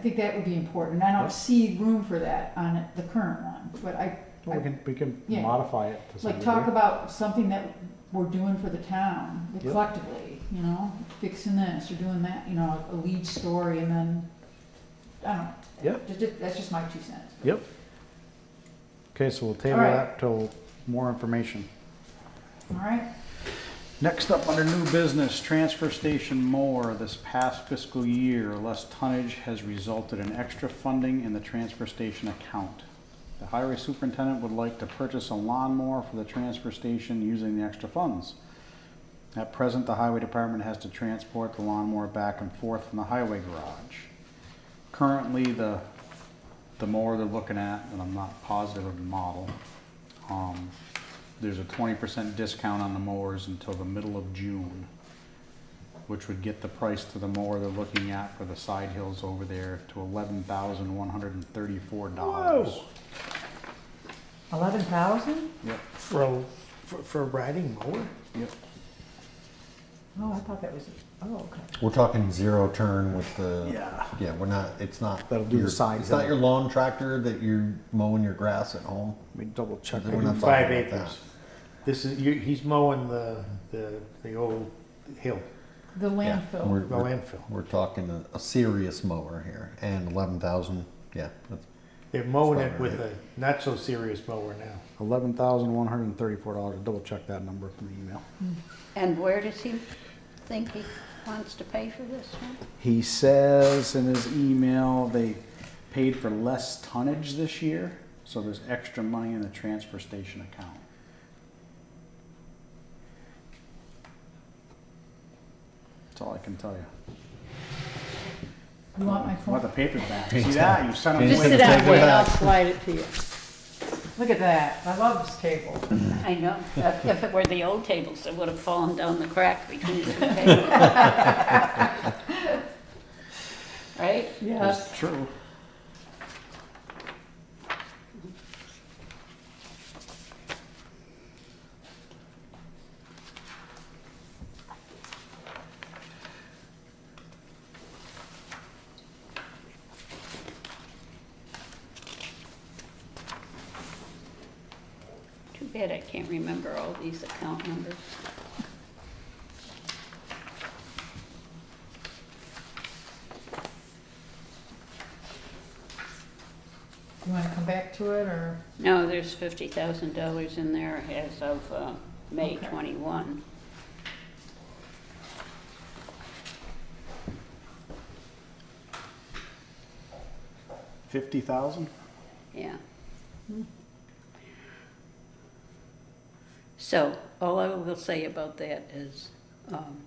think that would be important. I Yeah. don't see room for that on the current one, but I, We can, we can Yeah. modify it to some like, talk degree. about something that we're doing for the town Yep. collectively, you know? Fixing this or doing that, you know, a lead story and then, I don't know. Yeah. Ju- ju- That's just my two cents. Yep. Okay, so we'll table Alright. that till more information. All right, Next up, under new business, transfer station more. This past fiscal year, less tonnage has resulted in extra funding in the transfer station account. The highway superintendent would like to purchase a lawnmower for the transfer station using the extra funds. At present, the highway department has to transport the lawnmower back and forth from the highway garage. Currently, the, the mower they're looking at, and I'm not positive of the model, um, there's a twenty percent discount on the mowers until the middle of June, which would get the price to the mower they're looking at for the side hills over there to eleven thousand one hundred and thirty-four dollars. Whoa. Eleven thousand? Yep, For, a- for, for a riding mower? yep. Oh, I thought that was, oh, okay. We're talking zero turn with the. Yeah. Yeah, we're not, it's not. That'll do the your- side It's hill. not your lawn tractor that you're mowing your grass at home. Let me double check. We're not Five talking about acres. This is, you, he's mowing the, the, the old hill, the Yeah, landfill. We're, the we're, landfill. we're talking a, a serious mower here and eleven thousand, yeah, that's They're mowing It's it not with right. a not so serious mower now. Eleven thousand one hundred and thirty-four dollars. Double check that number from the email. And where does he think he wants to pay for this one? He says in his email they paid for less tonnage this year, so there's extra money in the transfer station account. That's all I can tell you. You want my Want the phone? paper back? See that? You sent him Just Wait, sit away. take down, it wait, and I'll back. slide it to you. Look at that, I love this table. I know, if if it were the old tables, it would have fallen down the crack between the two tables. Right? Yes. It's True. Too bad I can't remember all these account numbers. You wanna come back to it, or? No, there's fifty thousand dollars in there as of, uh, May Okay. twenty-one. Fifty thousand? Yeah. So, all I will say about that is, um,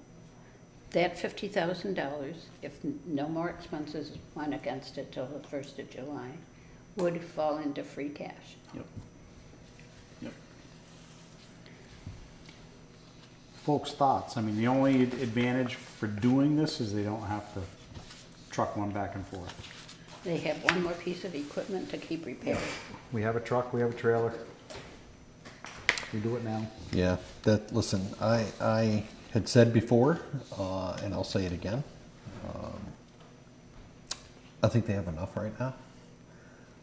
that fifty thousand dollars, if n- no more expenses went against it till the first of July, would fall into free cash. Yep. Yep. Folks' thoughts. I mean, the only advantage for doing this is they don't have to truck one back and forth. They have one more piece of equipment to keep repairing. We have a truck, we have a trailer. We do it now. Yeah, that, listen, I, I had said before, uh, and I'll say it again. um, I think they have enough right now.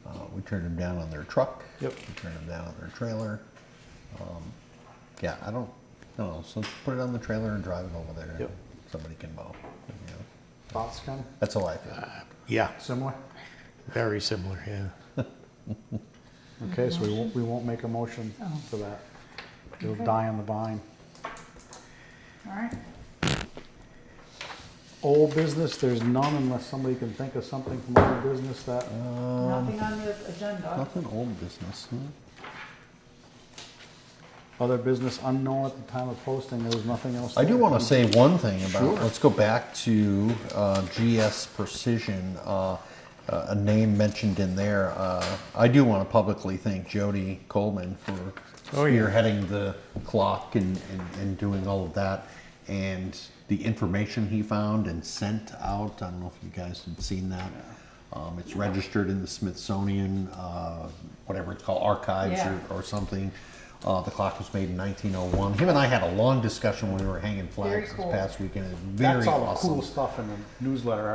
Uh, we turned them down on their truck. Yep. We turned them down on their trailer. Um, yeah, I don't, I don't know, so put it on the trailer and drive it over there. Yep. Somebody can mow, you know, Thoughts, Ken? that's how I feel. Yeah, Similar? very similar, yeah. Okay, so we won't, we won't make a motion for that. It'll die on the vine. All right, Old business, there's none unless somebody can think of something from old business that, Um, nothing on the agenda. Nothing old business, huh? other business unknown at the time of posting, there was nothing else. I do there. want to say one thing about. Sure. Let's go back to uh, GS Precision. Uh, uh, a name mentioned in there. Uh, I do want to publicly thank Jody Coleman for Oh, yeah. spearheading the clock and, and, and doing all of that, and the information he found and sent out. I don't know if you guys have seen that. Um, it's registered in the Smithsonian, uh, whatever it's called, archives Yeah. or, or something. Uh, the clock was made in 1901. Him and I had a long discussion when we were hanging Very flags cool. this past weekend. It was Very That's all the awesome. cool stuff in the newsletter